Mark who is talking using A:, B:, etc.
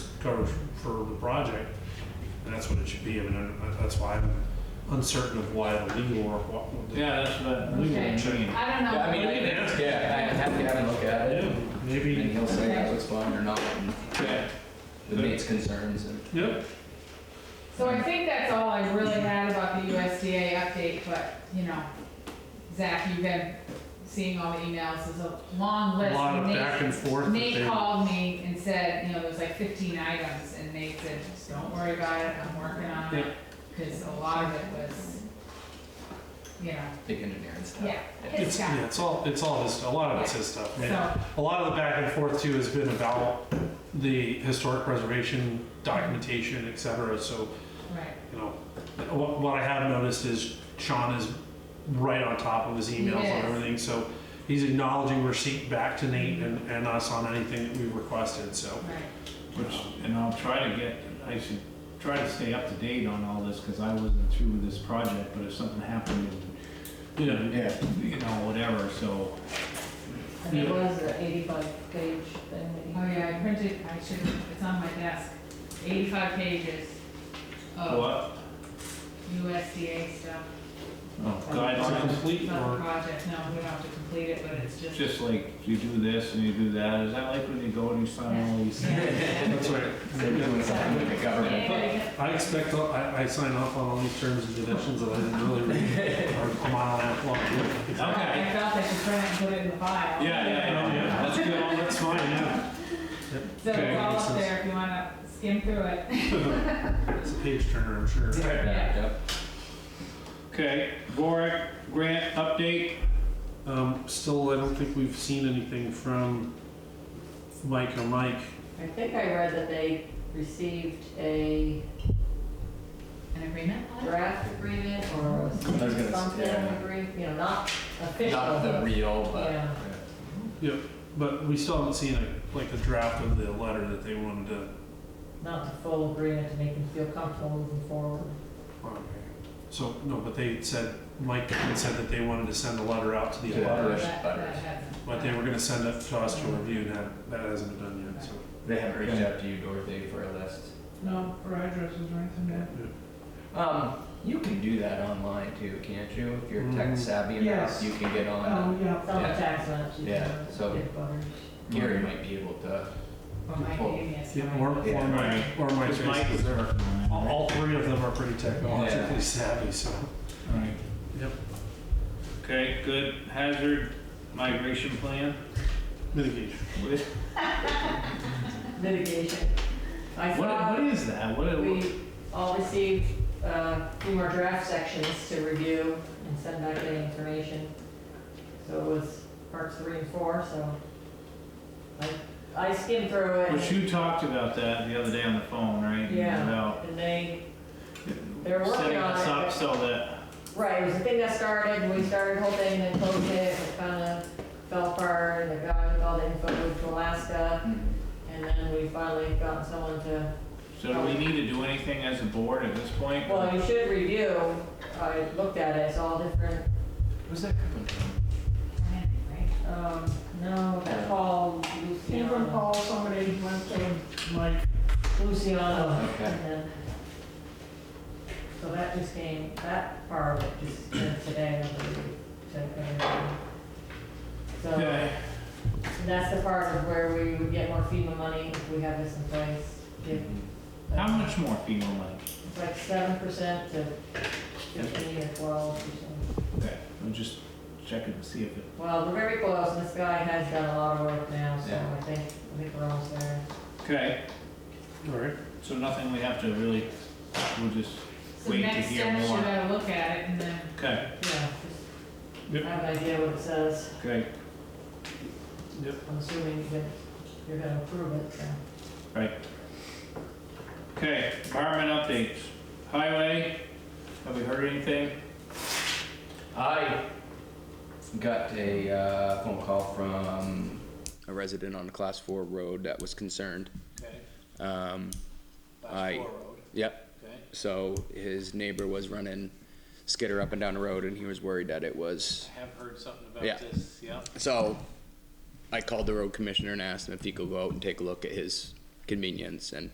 A: coverage for the project, and that's what it should be, I mean, I- that's why I'm uncertain of why the legal or what.
B: Yeah, that's what we
C: Okay.
B: were saying.
C: I don't know.
D: Yeah, I mean, I can ask, yeah, I can have to have him look at
A: Yeah,
D: it, and
A: maybe,
D: he'll say that was fun or not, and
B: Yeah.
D: the mate's concerns, and
A: yep,
C: So I think that's all I really had about the USDA update, but, you know, Zach, you've been seeing all the emails, there's a long
A: a
C: list.
A: lot of
C: Nate-
A: back and forth. that
C: Nate
A: they-
C: called me and said, you know, there's like fifteen items, and Nate said, "Just don't worry about it, I'm working on it. Because a lot of it was, you know,
D: big engineering stuff.
C: yeah, his
A: It's,
C: guy.
A: yeah, it's all, it's all his, a lot of it's his stuff. I mean,
C: So,
A: A lot of the back and forth too has been about the historic preservation documentation, et cetera, so,
C: right,
A: you know, what, what I have noticed is Sean is right on top of his emails
C: He
A: on
C: is.
A: everything, so he's acknowledging receipt back to Nate and, and us on anything that we've requested, so.
C: right.
B: Which, and I'll try to get, I should try to stay up to date on all this, because I wasn't through with this project, but if something happened,
A: Yeah.
B: yeah, you know, whatever, so.
E: And it was an eighty-five page thing that you.
C: Oh yeah, I printed, I should, it's on my desk, eighty-five pages of
B: What?
C: USDA stuff.
B: Oh,
A: It's a
B: Guidelines,
A: complete
C: Not a
A: work.
C: project, no, we don't have to complete it, but it's just.
B: just like you do this and you do that, is that like when you go and you sign all these?
C: Yeah.
A: That's right.
D: They're doing something with the government.
C: Yeah.
A: I expect, all- I, I sign off on all these terms and conditions that I didn't really read or a mile and a half long.
B: Okay.
C: I felt I should print it and put it in the
A: yeah,
C: file.
A: yeah.
B: That's good.
A: Oh, that's fine, yeah.
C: So
A: Okay,
C: it's all
A: makes
C: up
A: sense.
C: there if you wanna skim through it.
A: It's a page turner, I'm sure.
D: Yeah,
B: Okay, Boric, grant update,
A: Um, still, I don't think we've seen anything from Mike or Mike.
E: I think I read that they received a
C: An agreement?
E: draft agreement or a
D: I was gonna say,
E: something
D: yeah.
E: agreement, you know, not
D: Yep,
E: official.
D: not the
E: but-
D: real, but.
E: Yeah.
A: But we still haven't seen a, like a draft of the letter that they wanted to.
E: Not the full agreement to make them feel comfortable moving forward.
A: uh, So, no, but they said, Mike had said that they wanted to send a letter out to the
D: Yeah.
A: abutters,
D: Butters, butters.
A: but they were gonna send it to us to review, and that, that hasn't been done yet, so.
D: They haven't reached out to you, Dorothy, for a list.
C: No, or addresses or anything
D: Yeah. Um, you can do that online too, can't you? If you're tech
A: Mm.
D: savvy enough,
F: Yes.
D: you can get on.
F: Oh, yeah.
E: It's on the tax maps. you
D: Yeah,
E: know,
D: so-
E: get butters.
D: Gary might be able to.
C: Or my
B: Oh,
D: Well,
C: name, yes.
A: Yeah, or, or Mike, or Mike.
B: because Mike was there.
A: All, all three of them are pretty
D: Yeah.
A: technologically savvy, so.
B: Right.
A: Yep.
B: Okay, good, hazard migration plan.
A: Mitigation.
B: What,
E: Mitigation. I
B: what
E: saw
B: is that? What,
E: we all received uh, a few more draft sections to review and send back any information. So it was parts three and four, so I, I skimmed through
B: But
E: it
B: you talked about that the other day on the phone, right?
E: Yeah.
B: About
E: and they, They're working
B: setting
E: on
B: us
E: it.
B: up so that,
E: right, it was a thing that started, we started the whole thing and then closed it, it kind of fell apart, and the guy with all the info moved to Alaska, and then we finally got someone to
B: so do we need to do anything as a board at this point?
E: Well, you should review, I looked at it, it's all different,
D: Who's that coming from?
E: um, no, that Paul,
F: Even
E: Luciano.
F: call somebody went to Mike
E: Luciano.
D: Okay.
E: and then- So that just came, that part of it just came today, I believe, to everyone. So,
B: Okay.
E: that's the part of where we would get more FEMA money if we have this in place. If-
B: How much more FEMA money?
E: It's like seven percent to fifteen or twelve percent.
B: Okay, I'm just checking to see if it,
E: Well, we're very close, and this guy has done a lot of work now, so
D: Yeah.
E: I think, I think we're almost there.
B: okay,
A: All right.
B: so nothing we have to really, we'll just,
C: So
B: Wait to
C: next
B: hear
C: step, should
B: more.
C: I look at it and then,
B: okay,
E: Yeah, just
A: Yep.
E: have an idea what it says,
B: okay,
E: I'm assuming that you're gonna approve it, so.
B: okay, department updates. Highway, have we heard anything?
D: I got a uh, phone call from a resident on a class four road that was concerned.
B: Okay,
D: Um, I- yep.
B: okay.
D: So his neighbor was running skitter up and down the road, and he was worried that it was
B: I have heard something
D: Yeah.
B: about this, yeah.
D: So I called the road commissioner and asked him if he could go out and take a look at his convenience and